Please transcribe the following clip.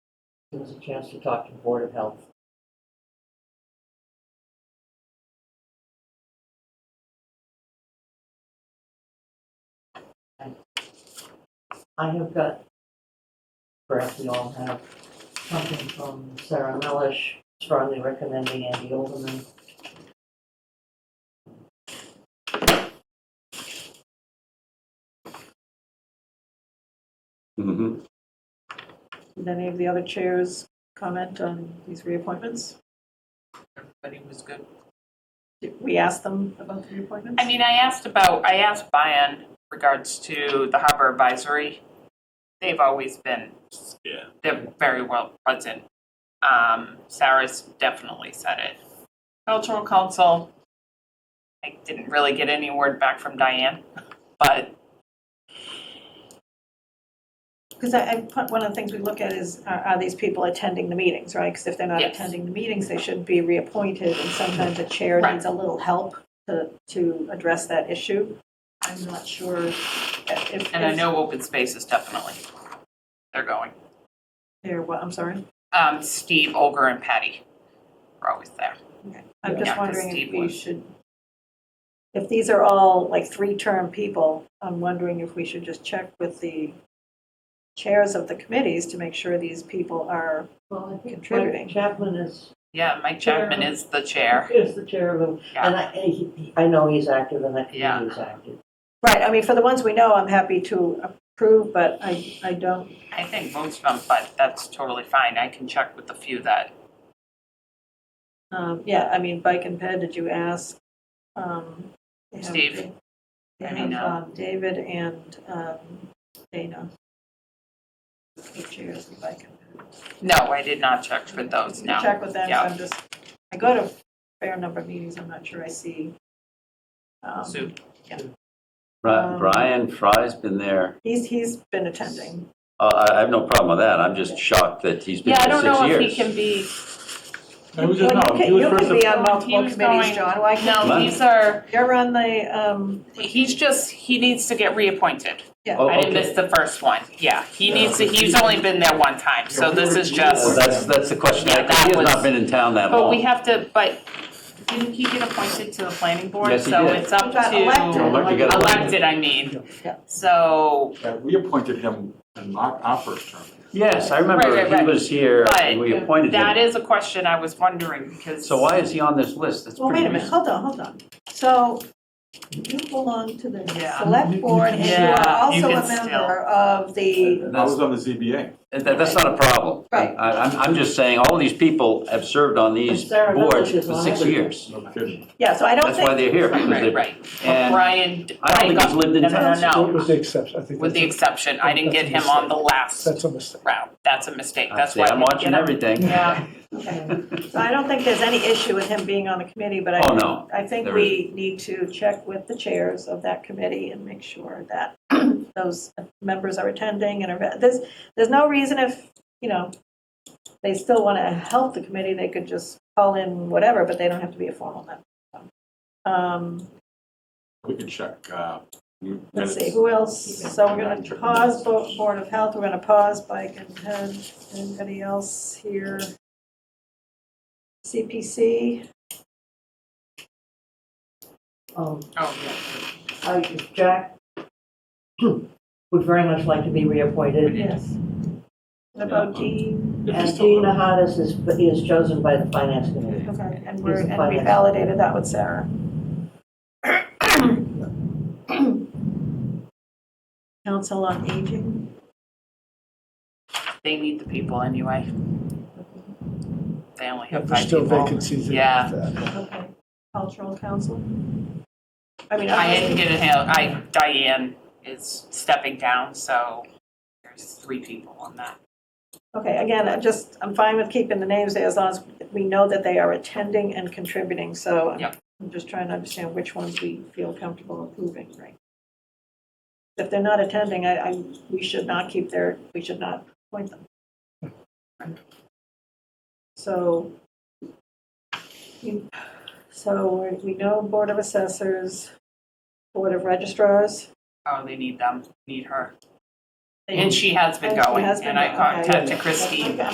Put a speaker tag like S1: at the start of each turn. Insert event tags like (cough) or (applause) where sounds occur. S1: give us a chance to talk to the Board of Health. I have got, perhaps we all have, something from Sarah Melish strongly recommending Andy Olderman.
S2: Mm-hmm.
S3: Did any of the other chairs comment on these reappointments?
S4: Everybody was good.
S3: Did we ask them about the reappointments?
S4: I mean, I asked about, I asked Bayan regards to the harbor advisory. They've always been,
S2: Yeah.
S4: they're very well present. Um, Sarah's definitely said it. Cultural council, I didn't really get any word back from Diane, but
S3: Because I, I put, one of the things we look at is, are, are these people attending the meetings, right? Because if they're not
S4: Yes.
S3: attending the meetings, they should be reappointed, and sometimes a chair
S4: Right.
S3: needs a little help to, to address that issue. I'm not sure if,
S4: and I
S3: if
S4: know open space is definitely they're going.
S3: they're, what, I'm sorry?
S4: Um, Steve, Olga, and Patty are always there.
S3: I'm
S4: Yeah,
S3: just
S4: 'cause
S3: wondering
S4: Steve
S3: if we
S4: was.
S3: should, if these are all like three-term people, I'm wondering if we should just check with the chairs of the committees to make sure these people are,
S1: Well, I think
S3: Contributing.
S1: Mike Chapman is,
S4: Yeah, Mike Chapman
S1: Yeah.
S4: is the chair.
S1: is the chair of them. And I, and he- he- I know he's active and that
S4: Yeah.
S1: committee is active.
S3: right, I mean, for the ones we know, I'm happy to approve, but I, I don't,
S4: I think most of them, but that's totally fine. I can check with the few that,
S3: um, yeah, I mean, Bike and Ped, did you ask? um, they have-
S4: Steve.
S3: They
S4: I
S3: have
S4: mean, uh,
S3: um, David and um, Dana. The chairs of Bike and Ped.
S4: no, I did not check for those,
S3: You
S4: no.
S3: Check with them, so
S4: Yeah.
S3: I'm just, I go to a fair number of meetings, I'm not sure I see. um,
S4: Sue.
S3: Um,
S2: Brian Fry's been there.
S3: He's, he's been attending.
S2: Uh, I I have no problem with that. I'm just shocked that he's been
S4: Yeah, I
S2: there
S4: don't
S2: six years.
S4: know if he can be,
S5: It was just,
S3: Well,
S5: no,
S3: you
S5: he
S3: can-
S5: was
S3: you
S5: first,
S3: can be on
S4: He
S3: multiple
S4: was
S3: committees,
S4: going-
S3: John, why can't,
S4: no, these are,
S3: you're on the, um,
S4: he's just, he needs to get reappointed.
S2: Oh,
S4: I didn't
S2: okay.
S4: miss the first one, yeah. He
S5: Yeah,
S4: needs to,
S5: but
S4: he's
S5: he-
S4: only been there one time, so
S5: Yeah,
S4: this
S5: we
S4: is
S5: were-
S2: Well,
S4: just,
S2: That's, that's the question.
S4: Yeah,
S2: I-
S4: that
S2: He has
S4: was-
S2: not been in town that
S4: but
S2: long.
S4: we have to, but didn't he get appointed to the planning board?
S2: Yes, he
S4: So
S2: did.
S4: it's up
S3: He got elected.
S4: to,
S2: Elected, got
S4: elected, I mean.
S3: Yeah.
S4: So,
S5: uh, we appointed him in my, our first term.
S2: Yes, I
S4: Right, right,
S2: remember he
S4: right.
S2: was here and
S4: But
S2: we appointed
S4: that
S2: him.
S4: is a question I was wondering, because.
S2: So why is he on this list? That's
S3: well, wait
S2: pretty
S3: a minute,
S2: recent.
S3: hold on, hold on. So you belong to the
S4: Yeah.
S3: select board and you are
S4: Yeah, you
S3: also
S4: can
S3: a
S4: still-
S3: member of the,
S5: I was on the ZBA.
S2: And that- That's not a problem.
S3: Right.
S2: I, I'm, I'm just saying, all these people have served on these
S1: And Sarah Miller
S2: boards
S1: is
S2: for
S1: on
S2: six
S1: it.
S2: years.
S5: No kidding.
S3: yeah, so I don't
S2: That's why they're
S3: think,
S2: here,
S4: Right,
S2: because
S4: right,
S2: they,
S4: right.
S2: and
S4: Brian.
S2: I don't think he's lived in
S4: no, no,
S2: town.
S4: no, no.
S6: It was the exception, I think.
S4: With the
S6: that's
S4: exception, I didn't get him on the last
S6: a- That's a mistake.
S4: round. That's a mistake.
S2: I
S4: That's
S2: see,
S4: why. I
S2: I'm
S4: didn't
S2: watching
S4: get him.
S2: everything.
S4: Yeah.
S3: so I don't think there's any issue with him being on the committee, but I
S2: Oh, no.
S3: I think
S2: There
S3: we need to check with the chairs of that committee and make sure that (clears throat) those members are attending and are, there's, there's no reason if, you know, they still want to help the committee, they could just call in whatever, but they don't have to be a formal member. so. Um,
S5: We can check, uh.
S3: Let's see,
S5: minutes.
S3: who else? So we're going to pause Bo- Board of Health, we're going to pause Bike and Head. Anybody else here? CPC,
S1: Um,
S4: Oh, yeah.
S1: I, Jack (clears throat) would very much like to be reappointed.
S3: yes. What about Dean?
S5: If he's
S1: And
S5: still
S1: Dean
S5: there.
S1: Nahadas is, is chosen by the finance committee.
S3: Okay, and we're,
S1: He's the
S3: and we
S1: finance.
S3: validated that with Sarah. Council on Aging,
S4: They need the people anyway. They only
S6: Yeah,
S4: have
S6: There's
S4: five
S6: still
S4: people.
S6: vacancies. in
S4: Yeah.
S6: that.
S3: okay. Cultural Council? I mean,
S4: I didn't
S3: obviously,
S4: get a hand. I Diane is stepping down, so there's three people on that.
S3: okay, again, I just, I'm fine with keeping the names there as long as we know that they are attending and contributing, so I'm-
S4: Yep.
S3: I'm just trying to understand which ones we feel comfortable approving, right? If they're not attending, I, I, we should not keep their, we should not appoint them. So, you- so we- we know Board of Assessors, Board of Registrars.
S4: Oh, they need them. Need her.
S3: they-
S4: And she has been
S3: And she
S4: going.
S3: has been
S4: And I
S3: going, okay.
S4: contacted Christine.
S3: Okay.